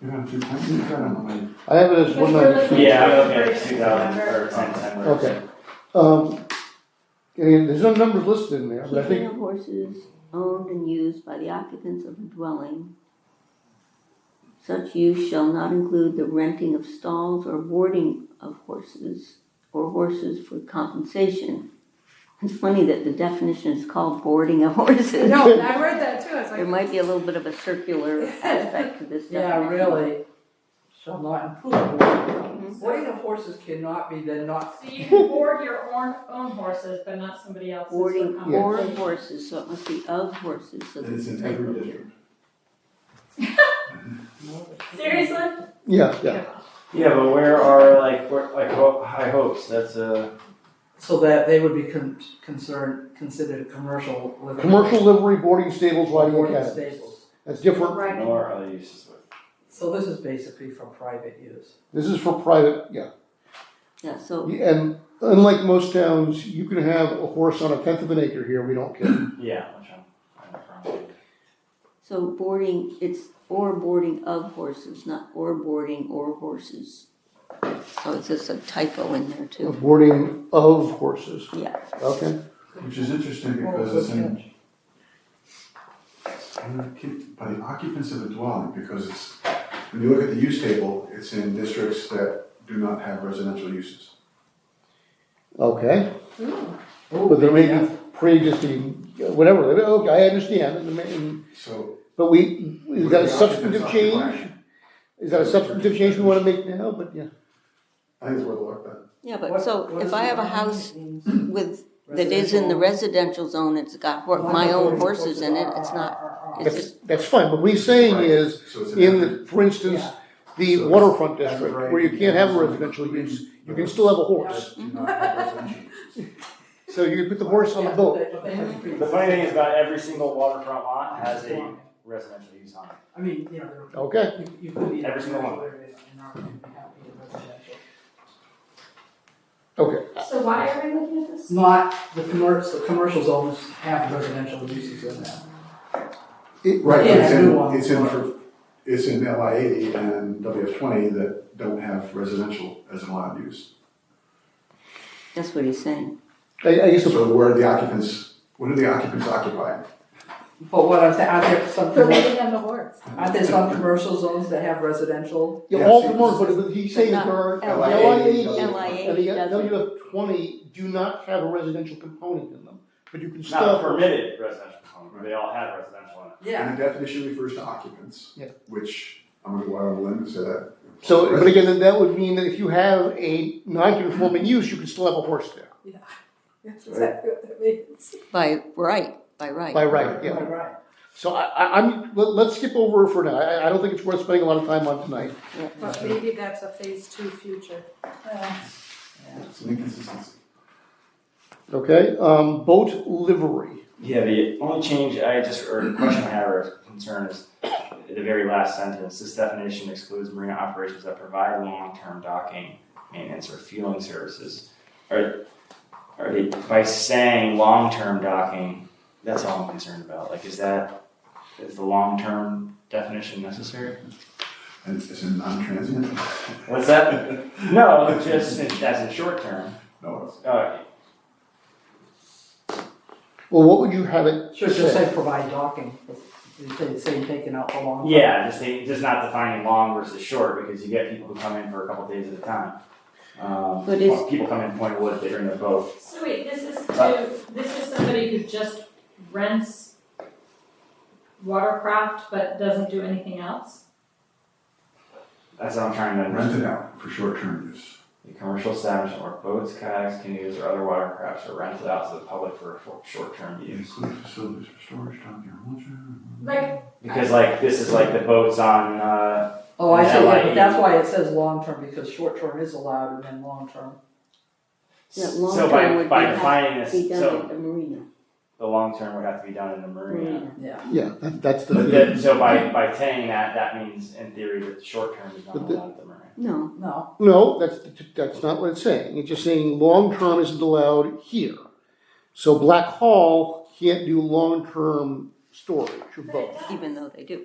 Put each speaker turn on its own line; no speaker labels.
You don't have to, you've got them, like,
I have it as one ninety-two.
Yeah, I'm
looking
looking
at
at two thousand or ten ten.
Okay. Um, and there's no numbers listed in there, but I
Keeping
think,
of horses owned and used by the occupants of a dwelling. Such use shall not include the renting of stalls or boarding of horses or horses for compensation. It's funny that the definition is called boarding of horses.
No, and I read that too, I was
There
like.
might be a little bit of a circular aspect to this
Yeah,
definition.
really, shall not include. Boarding of horses cannot be then not,
So you can board your own, own horses, but not somebody else's. for
Boarding
compensation.
or horses, so it must be of horses, so
and
this
it's
is
in
a type
every
of-
district.
Seriously?
yeah, yeah.
Yeah, but where are like where, like ho- high hopes? That's uh, a
so that they would be con- concerned, considered commercial livery.
Commercial livery, boarding stables, riding
Boarding
academies.
stables.
That's different.
Right.
nor are they uses with.
So this is basically for private use.
This is for private, yeah.
Yeah, so
And unlike most towns, you can have a horse on a tenth of an acre here, we don't care.
Yeah, which I'm, I'm from.
So boarding, it's or boarding of horses, not or boarding or horses. So it's just a typo in there
A
too.
Boarding of horses.
Yeah.
Okay,
Which is interesting because it's in, I'm gonna keep- by the occupants of a dwelling, because it's, when you look at the use table, it's in districts that do not have residential uses.
okay.
Ooh,
But there may be
yeah.
pre-existing, whatever, okay, I understand, and there may-
So.
but we, is that a
the
substantive
occupants
change?
occupying-
Is that a substantive change we wanna make now, but yeah,
I think it's worth a look at.
Yeah, but
What-
so
what
if
is
I have a
environment
house
means?
with, that is in the residential zone, it's got hor- my own horses in it, it's not, it's
that's,
just,
that's fine, but what he's saying
Right.
is,
So it's
in the, for instance,
Yeah.
the
So it's-
waterfront
that's
district,
right,
where you can't have a
yeah.
residential use, you can still have a horse.
That do not have residential uses.
So you put the horse on the
Yeah,
boat,
but they- but they-
The funny thing is about every single waterfront lot has a residential use on it.
I mean, you know, they're-
okay,
you, you could be. in a
Every single one.
commercial area and not be happy in residential.
okay,
So why are we looking at
It's
this?
Not, the commercial, the commercial zones have residential uses in them.
Right, but it's
Yeah, new
in,
ones.
it's in, for- it's in LI eighty and WF twenty that don't have residential as an allowed use.
that's what he's saying.
I, I guess, the-
So where are the occupants, what are the occupants occupying?
But what I'm saying, aren't there some,
They're
commer-
living on the horse.
aren't there some commercial zones that have residential?
yeah,
Yeah,
all
see,
commercial, but- but he's saying that there are,
But
not
LI eighty,
LIA
and the
LIA doesn't.
WF twenty do not have a residential component in them, but you can
It's
still.
not permitted residential component. They all have residential in it.
Yeah.
And the definition refers to occupants.
Yeah.
Which, I'm gonna go out on a limb and say that.
So, but again, then that would mean that if you have a non-conforming use, you can still have a horse there,
That's exactly what that means.
By right, by right.
by right, yeah.
Right, right.
So I, I, I'm, let, let's skip over for now, I, I don't think it's worth spending a lot of time on tonight.
But maybe that's a phase two future.
It's an inconsistency.
Okay, um, boat livery.
Yeah, the only change I just, or question I have or concern is the very last sentence, this definition excludes marina operations that provide long-term docking, maintenance, or fueling services. Are, are they, by saying long-term docking, that's all I'm concerned about, like, is that, is the long-term definition necessary?
And it's a non-transient.
What's that? No, just in- as in short-term,
No, it's-
uh,
Well, what would you have it
Should just
say?
say provide docking, you say, say taking out the long.
yeah, just, saying- just not defining long versus short, because you get people who come in for a couple days at a time. Um,
But it's-
people come in Point Wood, they bring their boat,
So wait, this is to, this is somebody who just rents watercraft but doesn't do anything else?
that's what I'm trying to
rent
understand.
it out for short-term use.
The commercial establishment where boats, kayaks, canoes, or other watercrafts are rented out to the public for short- short-term use.
Include facilities for storage, docking, or launching.
Like,
Because like, this is like the boats on, uh,
Oh, I see, yeah,
Yeah.
but that's why it says long-term, because short-term is allowed and then long-term.
That
so
long-term
by,
would
by
be-
defining this,
Be done at
so
the marina,
the long-term would have to be done in the marina.
marina.
Yeah, that, that's the.
But then, so by, by saying that, that means in theory that the short term is not
But the-
allowed at the marina.
No,
No,
No, that's, that's not what it's saying. It's just saying long-term isn't allowed here. So Black Hall can't do long-term storage of boats.
even though they do.